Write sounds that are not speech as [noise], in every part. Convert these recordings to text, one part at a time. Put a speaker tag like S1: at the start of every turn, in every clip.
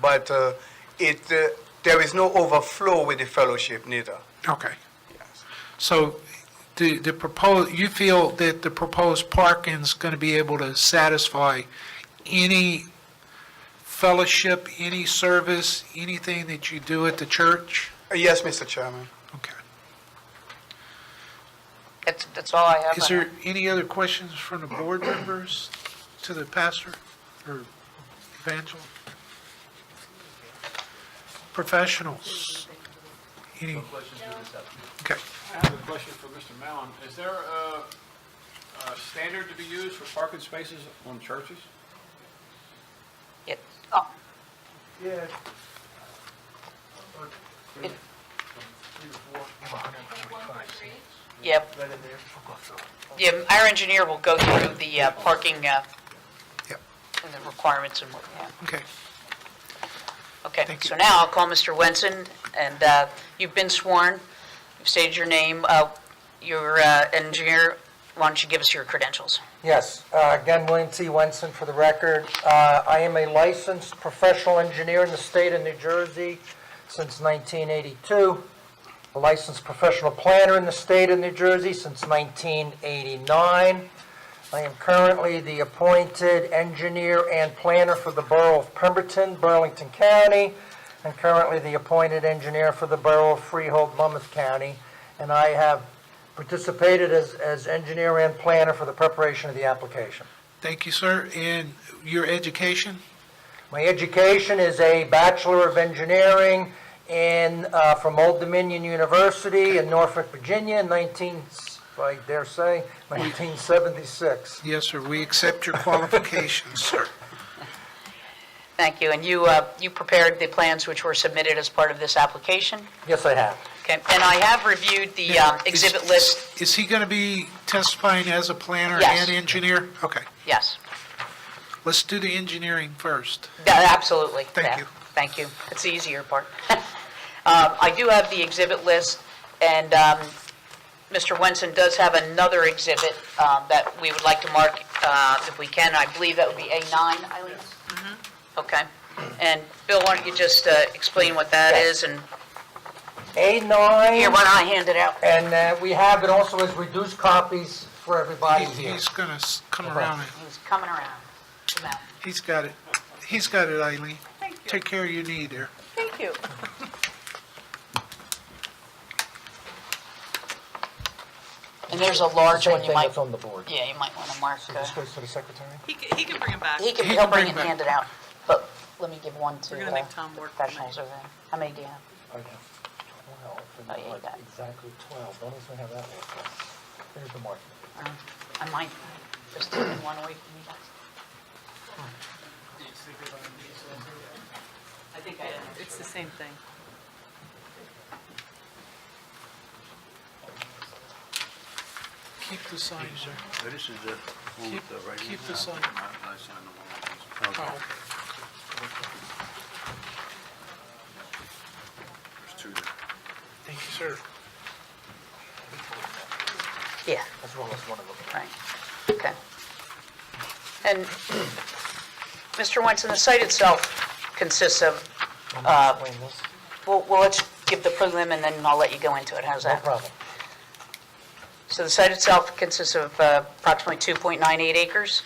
S1: but uh, it, uh, there is no overflow with the fellowship neither.
S2: Okay. So the, the proposed, you feel that the proposed parking's going to be able to satisfy any fellowship, any service, anything that you do at the church?
S1: Uh, Yes, Mr. Chairman.
S2: Okay.
S3: That's, that's all I have.
S2: Is
S3: on
S2: there any other questions from the board members to the pastor or evangel? Professionals? Any? Okay.
S4: I have a question for Mr. Mallon. Is there a, a standard to be used for parking spaces on churches?
S3: it. Oh,
S1: Yes.
S3: Yeah, yeah, our engineer will go through the uh, parking uh,
S2: Yep.
S3: and the requirements and what, yeah.
S2: Okay.
S3: Okay,
S2: Thank
S3: so
S2: you.
S3: now I'll call Mr. Wenson, and uh, you've been sworn, you've stated your name, uh, your uh, engineer, why don't you give us your credentials?
S5: Yes, uh, again, William T. Wenson for the record. Uh, I am a licensed professional engineer in the state of New Jersey since 1982, a licensed professional planner in the state of New Jersey since 1989. I am currently the appointed engineer and planner for the Borough of Pemberton, Burlington County, and currently the appointed engineer for the Borough of Freehold, Monmouth County. And I have participated as, as engineer and planner for the preparation of the application.
S2: Thank you, sir. And your education?
S5: My education is a Bachelor of Engineering in, uh, from Old Dominion University in Norfolk, Virginia, in 19, if I dare say, 1976.
S2: Yes, sir. We accept your qualifications, [laughs] sir.
S3: Thank you, and you, uh, you prepared the plans which were submitted as part of this application,
S5: Yes, I have.
S3: okay? And I have reviewed the uh, exhibit
S2: Is-
S3: list,
S2: Is he going to be testifying as a planner
S3: Yes.
S2: and engineer? Okay.
S3: yes.
S2: Let's do the engineering first.
S3: Yeah, Absolutely.
S2: Thank
S3: Yeah,
S2: you.
S3: Thank you. That's the easier part. [laughs] Um, I do have the exhibit list, and um, Mr. Wenson does have another exhibit um, that we would like to mark, uh, if we can. I believe that would be A9, Eileen?
S2: Mm-hmm.
S3: Okay. And Bill, why don't you just uh, explain what that is, and
S5: A9.
S3: here, why don't I hand it out?
S5: And uh, we have it also as reduced copies for everybody
S2: He's-
S5: here.
S2: He's going to come
S5: problem.
S2: around. and-
S3: He's coming around. Come out.
S2: He's got it. He's got it, Eileen. Take care of your knee there.
S3: Thank you. And there's a large
S5: Same
S3: one
S5: thing
S3: you might,
S5: that's on the board.
S3: yeah, you might want to mark.
S5: So
S3: uh,
S5: this goes to the secretary?
S6: He can, he can bring him back.
S3: He can,
S2: He
S3: he'll
S2: can
S3: bring
S2: bring
S3: it,
S2: back.
S3: hand it out, but let me give one to
S6: We're gonna
S3: uh,
S6: make Tom work tonight.
S3: professionals over there. How many do you have?
S5: I have 12,
S3: Oh, yeah, you got it.
S5: exactly 12. Don't even have that one. There's the mark.
S3: Uh, I might just take one away from you guys. I think I am.
S6: It's the same thing.
S2: Keep the sign, sir.
S7: This is the one with the
S2: Keep-
S7: right
S2: keep
S7: hand
S2: the
S7: up.
S2: sign.
S7: I signed the one.
S2: Oh,
S7: There's two there.
S2: Thank you, sir.
S3: Yeah,
S5: As well as one of them.
S3: right, okay. And, Mr. Wenson, the site itself consists of, uh,
S5: Explain this.
S3: well, well, let's give the prelim and then I'll let you go into it, how's
S5: No
S3: that?
S5: problem.
S3: So the site itself consists of uh, approximately 2.98 acres?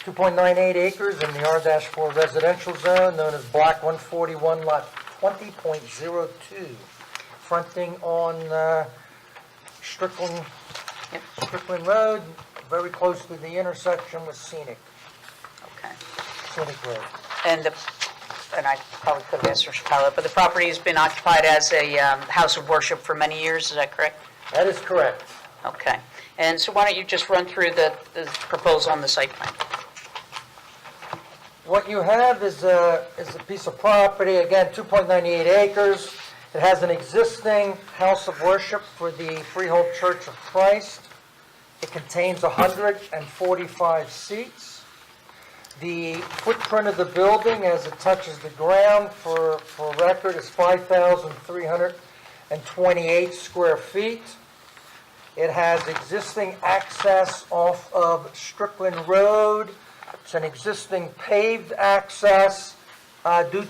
S5: 2.98 acres in the R-4 residential zone, known as Block 141, Lot 20.02, fronting on uh, Strickland,
S3: Yep.
S5: Strickland Road, very close to the intersection with Scenic,
S3: Okay.
S5: Scenic Road.
S3: And the, and I probably could have asked Mr. Pilot, but the property has been occupied as a um, house of worship for many years, is that correct?
S5: That is correct.
S3: Okay. And so why don't you just run through the, the proposal on the site plan?
S5: What you have is a, is a piece of property, again, 2.98 acres. It has an existing house of worship for the Freehold Church of Christ. It contains 145 seats. The footprint of the building as it touches the ground for, for record is 5,328 square feet. It has existing access off of Strickland Road. It's an existing paved access uh, due